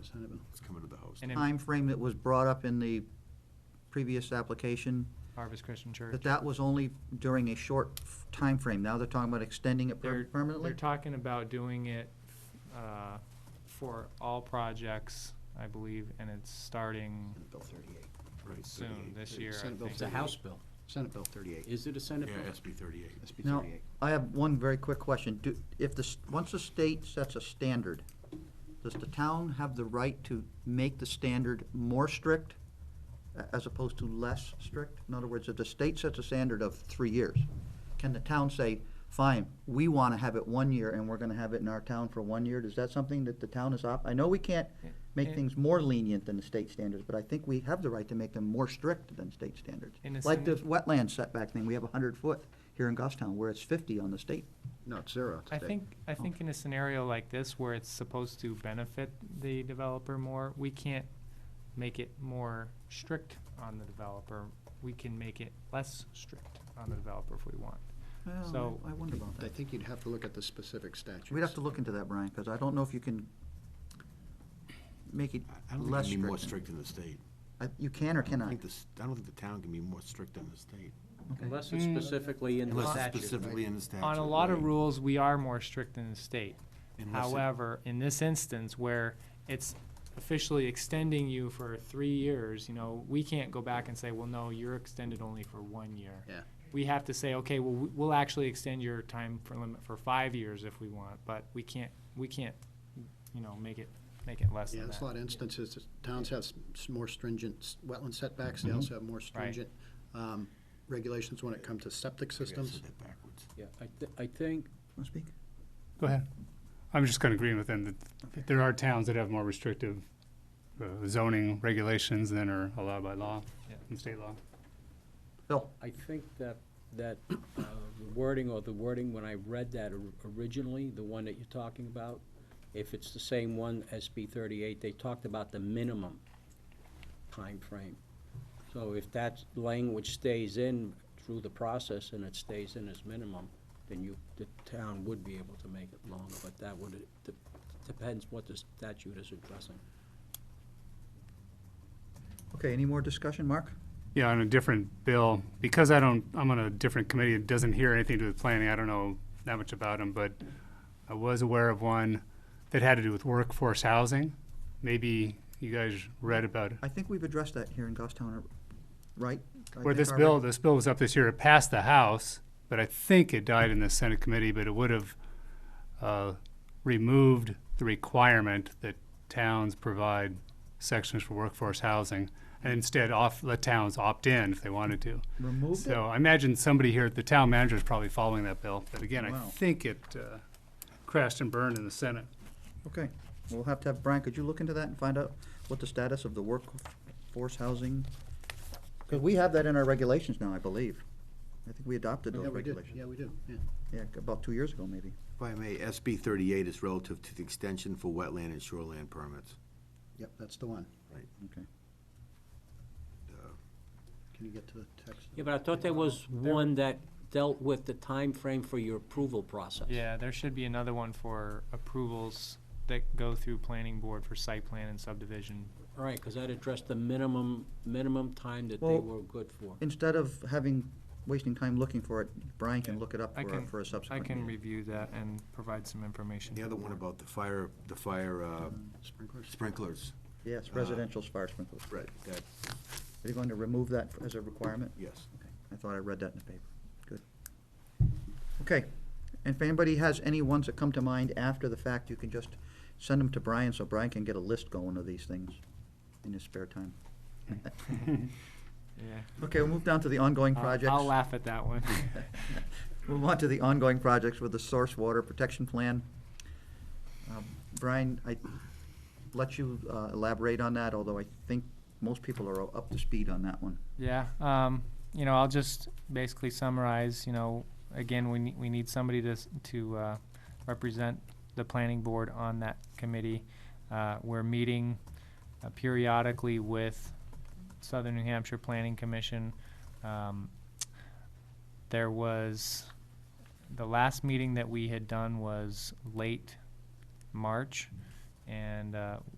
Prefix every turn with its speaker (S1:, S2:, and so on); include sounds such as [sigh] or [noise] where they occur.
S1: it's kind of a
S2: It's coming to the house.
S3: And in
S1: timeframe that was brought up in the previous application,
S3: Harvest Christian Church.
S1: that that was only during a short f- timeframe. Now they're talking about extending it per-
S3: They're- They're
S1: permanently?
S3: talking about doing it uh, for all projects, I believe, and it's starting
S4: Senate Bill 38.
S2: Right,
S3: soon,
S2: 38.
S3: this year, I
S4: Senate Bill
S3: think.
S4: It's a House bill. Senate Bill 38. Is it a Senate
S2: Yeah, SB thirty-eight.
S4: SB
S1: No.
S4: 38.
S1: I have one very quick question. Do, if the, s- once the state sets a standard, does the town have the right to make the standard more strict a- as opposed to less strict? In other words, if the state sets a standard of three years, can the town say, fine, we want to have it one year and we're going to have it in our town for one year? Is that something that the town is op, I know we can't make
S3: Yeah.
S1: things more lenient than the state standards, but I think we have the right to make them more strict than state standards.
S3: In a
S1: Like
S3: sen-
S1: this wetland setback thing, we have a hundred foot here in Goffstown where it's fifty on the state.
S4: No, it's zero
S3: I
S4: today.
S3: think, I think in a scenario like this where it's supposed to benefit the developer more, we can't make it more strict on the developer. We can make it less strict on the developer if we want.
S1: Well,
S3: So-
S1: I I wonder about
S4: I
S1: that.
S4: think you'd have to look at the specific statutes.
S1: We'd have to look into that, Brian, because I don't know if you can make it
S2: I- I don't think
S1: less
S2: it can be more strict
S1: strict.
S2: than the state.
S1: I- You can or
S2: I
S1: cannot?
S2: think this, I don't think the town can be more strict than the state.
S1: Okay.
S5: Unless it's
S3: Mm.
S5: specifically in the
S2: Unless it's
S5: statute.
S2: specifically in the statute.
S3: On a lot of
S2: right?
S3: rules, we are more strict than the state.
S2: Unless it-
S3: However, in this instance where it's officially extending you for three years, you know, we can't go back and say, well, no, you're extended only for one year.
S4: Yeah.
S3: We have to say, okay, well, we- we'll actually extend your time for limit for five years if we want, but we can't, we can't, you know, make it, make it less
S4: Yeah,
S3: than
S4: there's a lot
S3: that.
S4: of instances, that towns have s- s- more stringent s- wetland setbacks, they also have more stringent um, regulations when it comes to septic
S2: I think I said
S4: systems.
S2: that backwards.
S5: Yeah, I, thi- I think,
S1: Wanna speak?
S6: Go ahead. I'm just kind of agreeing with them that- that there are towns that have more restrictive uh, zoning regulations than are allowed by law,
S3: Yeah.
S6: in state law.
S1: Bill,
S5: I think that, that uh, the wording or the wording, when I read that or- originally, the one that you're talking about, if it's the same one, SB thirty-eight, they talked about the minimum time frame. So if that language stays in through the process and it stays in as minimum, then you, the town would be able to make it longer, but that would, it de- depends what the statute is addressing.
S1: okay, any more discussion, Mark?
S6: Yeah, on a different bill, because I don't, I'm on a different committee, it doesn't hear anything to do with planning, I don't know that much about them, but I was aware of one that had to do with workforce housing. Maybe you guys read about it.
S1: I think we've addressed that here in Goffstown, right? I
S6: Where
S1: think
S6: this
S1: our
S6: bill, this bill was up this year, it passed the House, but I think it died in the Senate committee, but it would have uh, removed the requirement that towns provide sections for workforce housing, and instead off, let towns opt in if they wanted to.
S1: Removed it?
S6: So I imagine somebody here, at the town manager is probably following that bill, but again, I
S1: Wow.
S6: think it uh, crashed and burned in the Senate.
S1: Okay, we'll have to have, Brian, could you look into that and find out what the status of the workforce housing? Because we have that in our regulations now, I believe. I think we adopted
S4: Yeah,
S1: those
S4: we do,
S1: regulations.
S4: yeah, we do, yeah.
S1: Yeah, about two years ago, maybe.
S2: If I may, SB thirty-eight is relative to the extension for wetland and shoreland permits.
S4: Yep, that's the one.
S1: Okay.
S4: Can you get to the text?
S5: Yeah, but I thought there was one that dealt with the time frame for your approval process.
S3: Yeah, there should be another one for approvals that go through planning board for site plan and subdivision.
S5: All right, because that addressed the minimum, minimum time that they
S1: Well-
S5: were good for.
S1: Instead of having, wasting time looking for it, Brian can look it up
S3: I
S1: for,
S3: can-
S1: for a
S3: I
S1: subsequent
S3: can
S1: meeting.
S3: review that and provide some information.
S2: The
S3: to
S2: other one
S3: board.
S2: about the fire, the fire uh,
S4: Sprinklers?
S2: sprinklers.
S1: Yes,
S3: uh,
S1: residential fire sprinklers.
S2: Right. That,
S1: Are you going to remove that as a requirement?
S2: yes.
S1: Okay, I thought I read that in the paper. Good. Okay, and if anybody has any ones that come to mind after the fact, you can just send them to Brian, so Brian can get a list going of these things in his spare time.
S3: Yeah.
S1: Okay, we'll move down to the ongoing
S3: Uh, I'll-
S1: projects.
S3: I'll laugh at that one.
S1: [laughs]
S3: [laughs]
S1: Move on to the ongoing projects with the source water protection plan. Um, Brian, I let you uh, elaborate on that, although I think most people are up to speed on that one.
S3: Yeah, um, you know, I'll just basically summarize, you know, again, we need, we need somebody to, s- to, uh, represent the planning board on that committee. Uh, we're meeting uh, periodically with Southern New Hampshire Planning Commission. Um, there was, the last meeting that we had done was late March, and, uh,